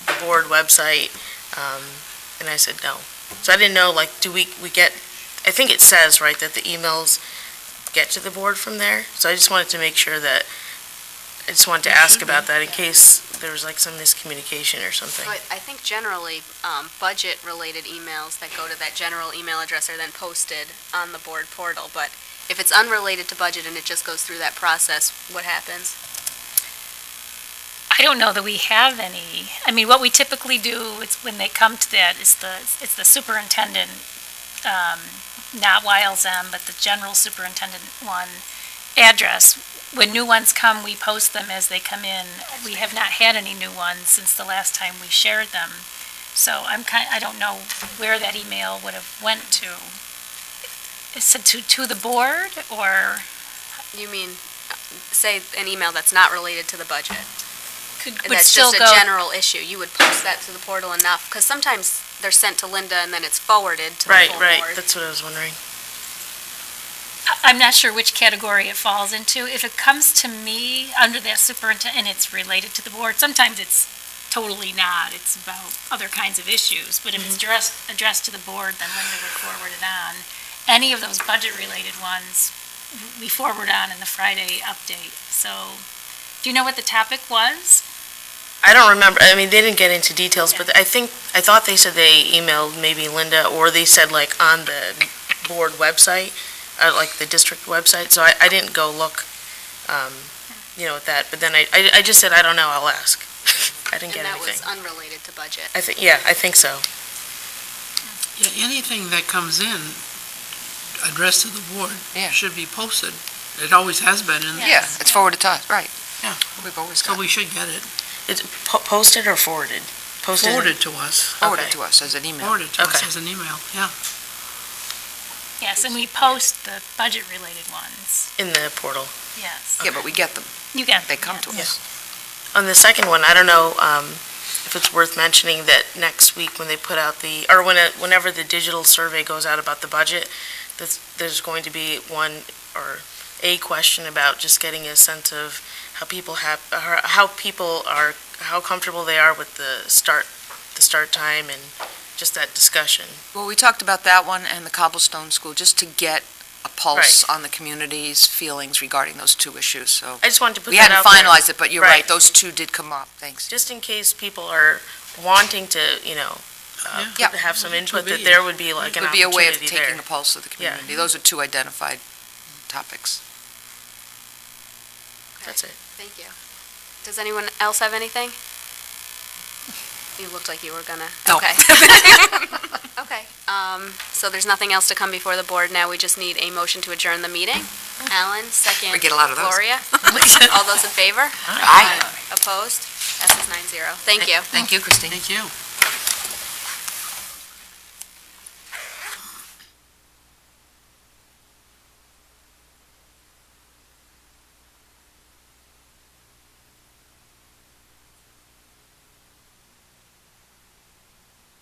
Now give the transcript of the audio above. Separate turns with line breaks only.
board website, um, and I said no. So I didn't know, like, do we, we get, I think it says, right, that the emails get to the board from there? So I just wanted to make sure that, I just wanted to ask about that in case there was like some miscommunication or something.
But I think generally, um, budget-related emails that go to that general email address are then posted on the board portal. But if it's unrelated to budget and it just goes through that process, what happens?
I don't know that we have any. I mean, what we typically do is when they come to that is the, it's the superintendent, um, not YLZM, but the general superintendent one address. When new ones come, we post them as they come in. We have not had any new ones since the last time we shared them. So I'm kind, I don't know where that email would have went to. Is it to, to the board or
You mean, uh, say, an email that's not related to the budget?
could,
And
would
that's
still
just
go?
a general issue, you would post that to the portal enough, because sometimes they're sent to Linda and then it's forwarded to the
Right,
full board.
right, that's what I was wondering.
I- I'm not sure which category it falls into. If it comes to me under that superintendent, and it's related to the board, sometimes it's totally not. It's about other kinds of issues. But if it's
Mm-hmm.
addressed, addressed to the board, then Linda would forward it on. Any of those budget-related ones, w- we forward on in the Friday update. So, do you know what the topic was?
I don't remember, I mean, they didn't get into details, but I think, I thought they said they emailed maybe Linda, or they said like on the board website, uh, like the district website, so I, I didn't go look, um, you know, at that, but then I, I, I just said, I don't know, I'll ask. I didn't get
And that was
anything.
unrelated to budget.
I think, yeah, I think so.
Yeah, anything that comes in addressed to the board
Yeah.
should be posted. It always has been, and
Yeah, it's forwarded to us, right.
Yeah.
We've always
so
got
we should get it
It's po- posted or forwarded? Posted.
forwarded to us,
forwarded
okay.
to us as an email.
forwarded to us
Okay.
as an email, yeah.
Yes, and we post the budget-related ones,
In the portal.
yes.
Yeah, but we get them,
You got
they come to
yeah.
us.
On the second one, I don't know um, if it's worth mentioning that next week when they put out the, or when, it- whenever the digital survey goes out about the budget, that's- there's going to be one or a question about just getting a sense of how people have, how how people are, how comfortable they are with the start, the start time and just that discussion.
Well, we talked about that one and the cobblestone school, just to get a pulse on the community's feelings regarding those two issues, so.
I just wanted to put
We
that
hadn't
out there.
finalized it, but you're right,
Right.
those two did come up, thanks.
Just in case people are wanting to, you know, uh,
Yeah.
put- have some input, that
be.
there would be like an
Would be a way of
opportunity
taking the
there.
pulse of the
Yeah.
community. Those are two identified topics.
That's it.
Thank you. Does anyone else have anything? You looked like you were gonna.
No.
Okay. Okay, um, so there's nothing else to come before the board now, we just need a motion to adjourn the meeting. Alan, second.
We get a lot of those.
Gloria, all those in favor?
Aye.
Opposed? Passes nine zero. Thank you.
Thank you, Christine.
Thank you.